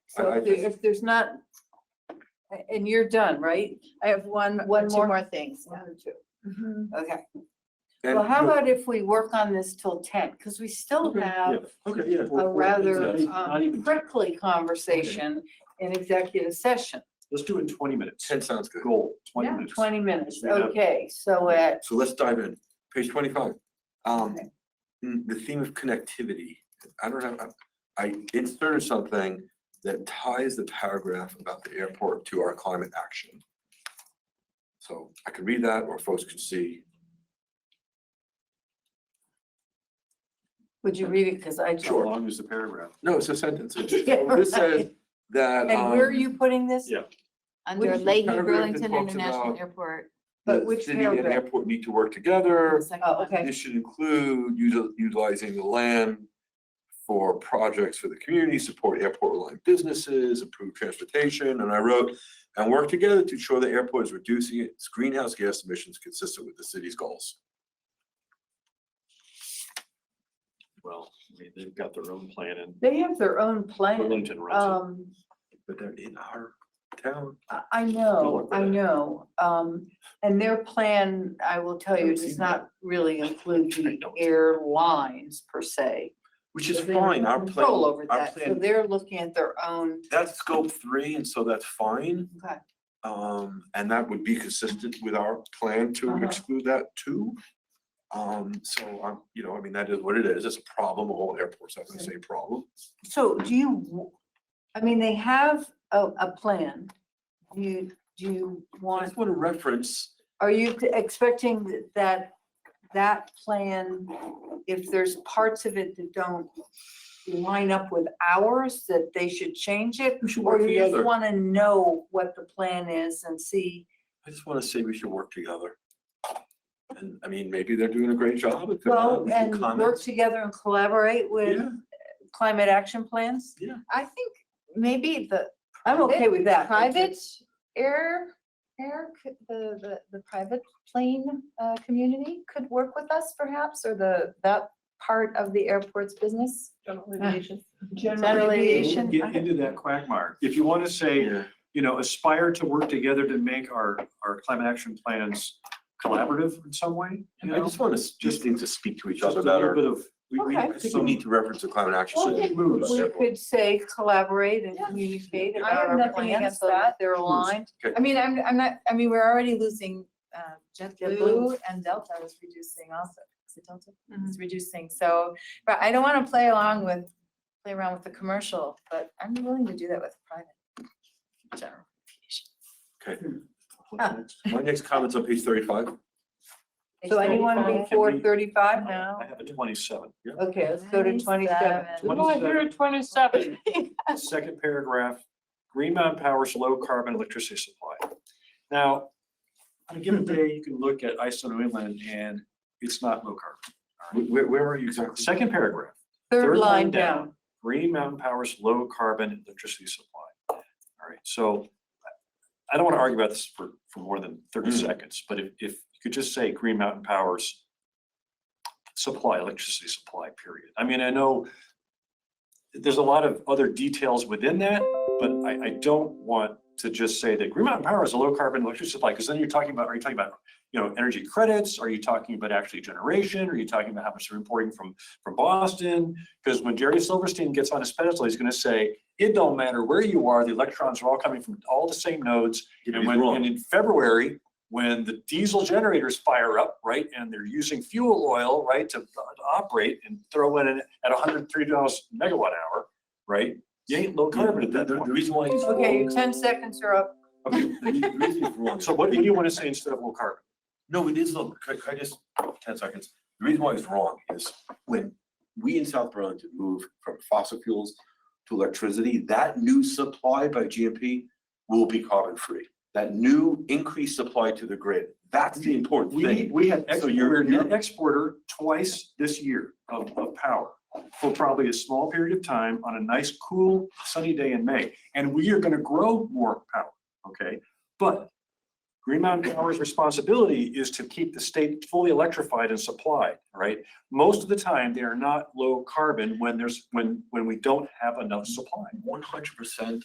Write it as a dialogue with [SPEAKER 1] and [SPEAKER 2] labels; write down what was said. [SPEAKER 1] So
[SPEAKER 2] I- I
[SPEAKER 1] if there-
[SPEAKER 2] just-
[SPEAKER 1] if there's not, a- and you're done, right?
[SPEAKER 3] I have one,
[SPEAKER 1] One
[SPEAKER 3] one two
[SPEAKER 1] more?
[SPEAKER 3] more things.
[SPEAKER 1] One or two.
[SPEAKER 3] Mhm.
[SPEAKER 1] Okay,
[SPEAKER 2] And
[SPEAKER 1] well, how
[SPEAKER 2] look-
[SPEAKER 1] about if we work on this till ten, because we still
[SPEAKER 2] Okay,
[SPEAKER 1] have
[SPEAKER 2] Okay, yeah. we're-
[SPEAKER 1] a
[SPEAKER 2] we're-
[SPEAKER 1] rather
[SPEAKER 2] it's-
[SPEAKER 1] um,
[SPEAKER 4] not even-
[SPEAKER 1] prickly conversation in executive session.
[SPEAKER 4] Let's do it in twenty minutes.
[SPEAKER 2] Ten sounds good.
[SPEAKER 4] Goal, twenty
[SPEAKER 3] Yeah,
[SPEAKER 4] minutes.
[SPEAKER 1] Twenty minutes,
[SPEAKER 4] Yeah.
[SPEAKER 1] okay, so uh, at,
[SPEAKER 2] So let's dive in. Page twenty-five. Um,
[SPEAKER 1] Okay.
[SPEAKER 2] mm, the theme of connectivity. I don't have, I- I inserted something that ties the paragraph about the airport to our climate action. So I could read that or folks could see.
[SPEAKER 1] would you read it, because I.
[SPEAKER 4] How long is the paragraph?
[SPEAKER 2] No, it's a sentence. It's-
[SPEAKER 1] Yeah,
[SPEAKER 2] so This says
[SPEAKER 1] right.
[SPEAKER 2] that.
[SPEAKER 1] And where are
[SPEAKER 2] um,
[SPEAKER 1] you putting this?
[SPEAKER 4] Yeah.
[SPEAKER 3] Under
[SPEAKER 2] Which
[SPEAKER 3] Leahy
[SPEAKER 2] paragraph it
[SPEAKER 3] Burlington
[SPEAKER 2] talks
[SPEAKER 3] International
[SPEAKER 2] about-
[SPEAKER 3] Airport.
[SPEAKER 1] But
[SPEAKER 2] the
[SPEAKER 1] which
[SPEAKER 2] City and
[SPEAKER 1] paragraph?
[SPEAKER 2] airport need to work together.
[SPEAKER 3] the second
[SPEAKER 1] Oh,
[SPEAKER 3] one.
[SPEAKER 1] okay.
[SPEAKER 2] This should include util- utilizing the land for projects for the community, support airport aligned businesses, improve transportation, and I wrote, and work together to ensure the airport is reducing its greenhouse gas emissions consistent with the city's goals.
[SPEAKER 4] Well, I mean, they've got their own plan and
[SPEAKER 1] They have their own plan.
[SPEAKER 4] Burlington runs
[SPEAKER 1] Um,
[SPEAKER 2] But they're in our town.
[SPEAKER 1] I, I
[SPEAKER 4] work
[SPEAKER 1] know,
[SPEAKER 4] with
[SPEAKER 1] I
[SPEAKER 4] it.
[SPEAKER 1] know. Um, and their plan, I will tell you,
[SPEAKER 2] Haven't
[SPEAKER 1] does
[SPEAKER 2] seen
[SPEAKER 1] not really include
[SPEAKER 4] I
[SPEAKER 1] the
[SPEAKER 4] don't.
[SPEAKER 1] airlines per se.
[SPEAKER 2] Which is
[SPEAKER 1] They have
[SPEAKER 2] fine,
[SPEAKER 1] no
[SPEAKER 2] our
[SPEAKER 1] Control
[SPEAKER 2] plan,
[SPEAKER 1] over
[SPEAKER 2] our
[SPEAKER 1] that, so
[SPEAKER 2] plan-
[SPEAKER 1] they're looking at their own,
[SPEAKER 2] that's scope three, and so that's fine.
[SPEAKER 1] okay,
[SPEAKER 2] Um, and that would be consistent with our plan to
[SPEAKER 1] Uh-huh.
[SPEAKER 2] exclude that too. Um, so I'm, you know, I mean, that is what it is. It's a problem. All airports have the same problem.
[SPEAKER 1] so do you, w- I mean, they have a, a plan. Do you, do you
[SPEAKER 2] I
[SPEAKER 1] want,
[SPEAKER 2] just want to reference,
[SPEAKER 1] are you t- expecting th- that, that plan, if there's parts of it that don't line up with ours, that they should change it?
[SPEAKER 2] we should
[SPEAKER 1] Or
[SPEAKER 2] work
[SPEAKER 1] you just
[SPEAKER 2] together.
[SPEAKER 1] want to know what the plan is and see,
[SPEAKER 2] I just want to say we should work together. And I mean, maybe they're doing a great job. if they're not,
[SPEAKER 1] well,
[SPEAKER 2] we can
[SPEAKER 1] and work
[SPEAKER 2] comment.
[SPEAKER 1] together and collaborate with
[SPEAKER 2] Yeah,
[SPEAKER 1] climate action plans?
[SPEAKER 3] I think maybe the
[SPEAKER 1] I'm okay with that.
[SPEAKER 3] private air, air, c- the, the, the private plane, uh, community could work with us perhaps, or the, that part of the airport's business. Ah.
[SPEAKER 1] General
[SPEAKER 3] aviation,
[SPEAKER 1] aviation.
[SPEAKER 4] Get into that quagmire. If you want to say,
[SPEAKER 2] yeah.
[SPEAKER 4] you know, aspire to work together to make our, our climate action plans collaborative in some way, you
[SPEAKER 2] I
[SPEAKER 4] know?
[SPEAKER 2] just want to, just
[SPEAKER 4] just-
[SPEAKER 2] need to speak to each
[SPEAKER 4] Just
[SPEAKER 2] other
[SPEAKER 4] a little
[SPEAKER 2] better.
[SPEAKER 4] bit of, we, we,
[SPEAKER 1] Okay.
[SPEAKER 2] I think we need to reference the climate action.
[SPEAKER 1] Well,
[SPEAKER 2] so-
[SPEAKER 4] moves.
[SPEAKER 1] We could say collaborate and
[SPEAKER 3] Yeah.
[SPEAKER 1] communicate
[SPEAKER 3] I
[SPEAKER 1] about
[SPEAKER 3] have
[SPEAKER 1] our
[SPEAKER 3] nothing
[SPEAKER 1] plans
[SPEAKER 3] against
[SPEAKER 1] so that
[SPEAKER 3] that.
[SPEAKER 1] they're aligned.
[SPEAKER 3] I mean, I'm, I'm not, I mean, we're already losing, uh,
[SPEAKER 1] JetBlue.
[SPEAKER 3] JetBlue and Delta is reducing also. Is it Delta?
[SPEAKER 1] Mm-hmm.
[SPEAKER 3] It's reducing, so, but I don't want to play along with, play around with the commercial, but I'm willing to do that with private. General.
[SPEAKER 2] My next comment's on page thirty-five.
[SPEAKER 1] So anyone
[SPEAKER 4] Can
[SPEAKER 1] before
[SPEAKER 4] we-
[SPEAKER 1] thirty-five now?
[SPEAKER 4] I have a twenty-seven.
[SPEAKER 1] Okay, let's go to twenty-seven.
[SPEAKER 4] 27. Well, here
[SPEAKER 1] at twenty-seven.
[SPEAKER 4] Second paragraph, Green Mountain Power's low carbon electricity supply. Now, on a given day, you can look at ISO New England and it's not low carbon.
[SPEAKER 2] Where, where are you exactly?
[SPEAKER 4] Second paragraph,
[SPEAKER 1] Third line down.
[SPEAKER 4] Green Mountain Power's low carbon electricity supply. All right, so I don't want to argue about this for, for more than thirty
[SPEAKER 2] Mm.
[SPEAKER 4] seconds, but if, if you could just say Green Mountain Power's supply, electricity supply, period. I mean, I know there's a lot of other details within that, but I, I don't want to just say that Green Mountain Power is a low carbon electricity supply, because then you're talking about, are you talking about, you know, energy credits? Are you talking about actually generation? Are you talking about how much they're importing from, from Boston? Because when Jerry Silverstein gets on his pedestal, he's gonna say, it don't matter where you are, the electrons are all coming from all the same nodes. And
[SPEAKER 2] He's
[SPEAKER 4] when,
[SPEAKER 2] wrong.
[SPEAKER 4] and in February, when the diesel generators fire up, right, and they're using fuel oil, right, to to operate and throw in an- at hundred and three dollars megawatt hour, right? You ain't low carbon at
[SPEAKER 2] The,
[SPEAKER 4] that
[SPEAKER 2] the- the
[SPEAKER 4] point.
[SPEAKER 2] reason why he's wrong.
[SPEAKER 1] Okay, your ten seconds are up.
[SPEAKER 2] Okay, the reason- the reason he's wrong is
[SPEAKER 4] So what what do
[SPEAKER 2] because-
[SPEAKER 4] you wanna say instead of low carbon?
[SPEAKER 2] No, it is, look, can can I just, ten seconds. The reason why it's wrong is when we in South Burlington move from fossil fuels to electricity, that new supply by GMP will be carbon free. That new increased supply to the grid, that's the important
[SPEAKER 4] We,
[SPEAKER 2] thing.
[SPEAKER 4] we had,
[SPEAKER 2] So you're-
[SPEAKER 4] we're a net
[SPEAKER 2] you're-
[SPEAKER 4] exporter twice this year of, of power for probably a small period of time on a nice, cool, sunny day in May. And we are gonna grow more power, okay? But Green Mountain Power's responsibility is to keep the state fully electrified and supplied, right? Most of the time, they are not low carbon when there's, when, when we don't have enough supply.
[SPEAKER 2] One hundred percent